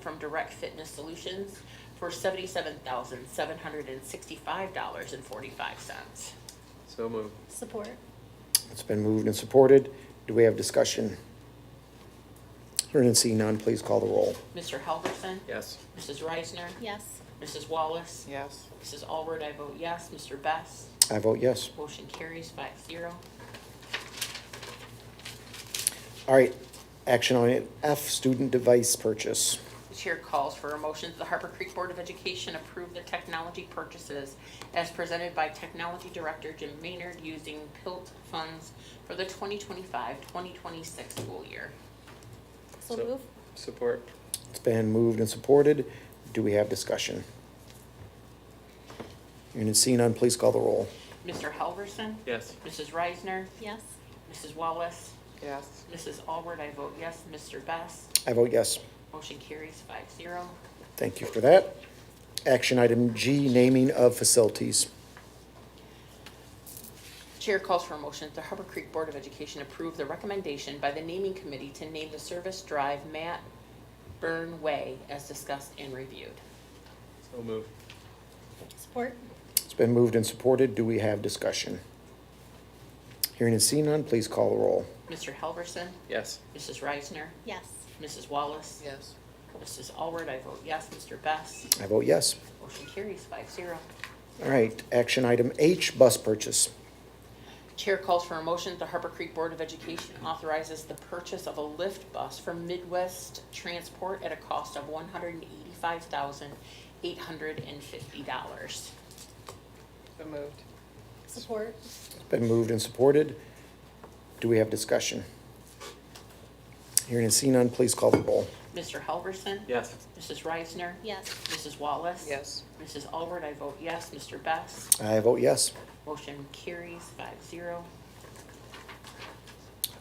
from Direct Fitness Solutions for seventy-seven thousand, seven hundred and sixty-five dollars and forty-five cents. So moved. Support. It's been moved and supported. Do we have discussion? Hearing and seeing none, please call the roll. Mr. Helverson? Yes. Mrs. Reisner? Yes. Mrs. Wallace? yes, Mrs. Allward, I vote yes. Mr. Best? I vote yes. Motion carries five zero. All right, action on it. F, student device purchase. The chair calls for a motion that the Harper Creek Board of Education approve the technology purchases as presented by Technology Director Jim Maynard using PILT funds for the 2025-2026 school year. So move. Support. It's been moved and supported. Do we have discussion? Hearing and seeing none, please call the roll. Mr. Helverson? Yes. Mrs. Reisner? Yes. Mrs. Wallace? yes, Mrs. Allward, I vote yes. Mr. Best? I vote yes. Motion carries five zero. Thank you for that. Action item G, naming of facilities. Chair calls for a motion that the Harbor Creek Board of Education approve the recommendation by the naming committee to name the service drive Matt Burn Way as discussed and reviewed. So moved. Support. It's been moved and supported. Do we have discussion? Hearing and seeing none, please call the roll. Mr. Helverson? Yes. Mrs. Reisner? Yes. Mrs. Wallace? yes, Mrs. Allward, I vote yes. Mr. Best? I vote yes. Motion carries five zero. All right, action item H, bus purchase. Chair calls for a motion that the Harbor Creek Board of Education authorizes the purchase of a lift bus from Midwest Transport at a cost of one hundred and eighty-five thousand, eight hundred and fifty dollars. so moved, Support. It's Been moved and supported. Do we have discussion? Hearing and seeing none, please call the roll. Mr. Helverson? Yes. Mrs. Reisner? Yes. Mrs. Wallace? yes, Mrs. Alward, I vote yes. Mr. Best? I vote yes. Motion carries five zero.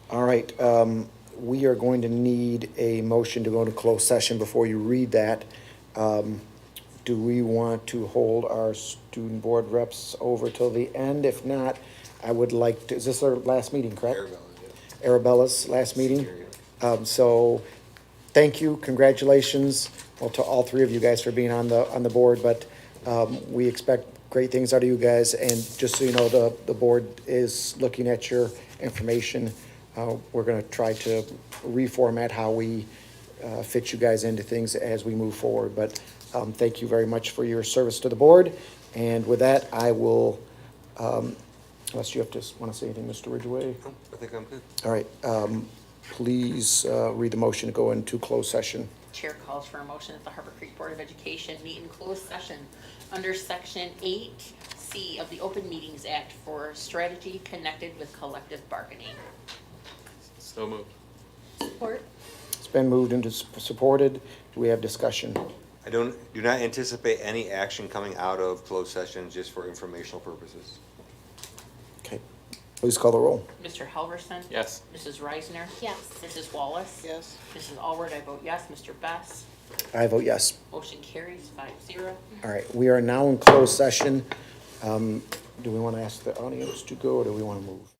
All right, um, we are going to need a motion to go into closed session before you read that. Um, do we want to hold our student board reps over till the end? If not, I would like to, is this our last meeting, correct? Arabella's last meeting. Um, so, thank you, congratulations, well, to all three of you guys for being on the, on the board, but, um, we expect great things out of you guys, and just so you know, the, the board is looking at your information. Uh, we're gonna try to reformat how we, uh, fit you guys into things as we move forward, but, um, thank you very much for your service to the board, and with that, I will, um, unless you have to, wanna say anything, Mr. Ridgway? I think I'm good. All right, um, please, uh, read the motion to go into closed session. Chair calls for a motion that the Harbor Creek Board of Education meet in closed session under Section 8C of the Open Meetings Act for strategy connected with collective bargaining. So moved. Support. It's been moved and dis- supported. Do we have discussion? I don't, do not anticipate any action coming out of closed session just for informational purposes. Okay. Please call the roll. Mr. Helverson? Yes. Mrs. Reisner? Yes. Mrs. Wallace? yes. Mrs. Alward, I vote yes. Mr. Best? I vote yes. Motion carries five zero. All right, we are now in closed session. Um, do we want to ask the audience to go or do we want to move?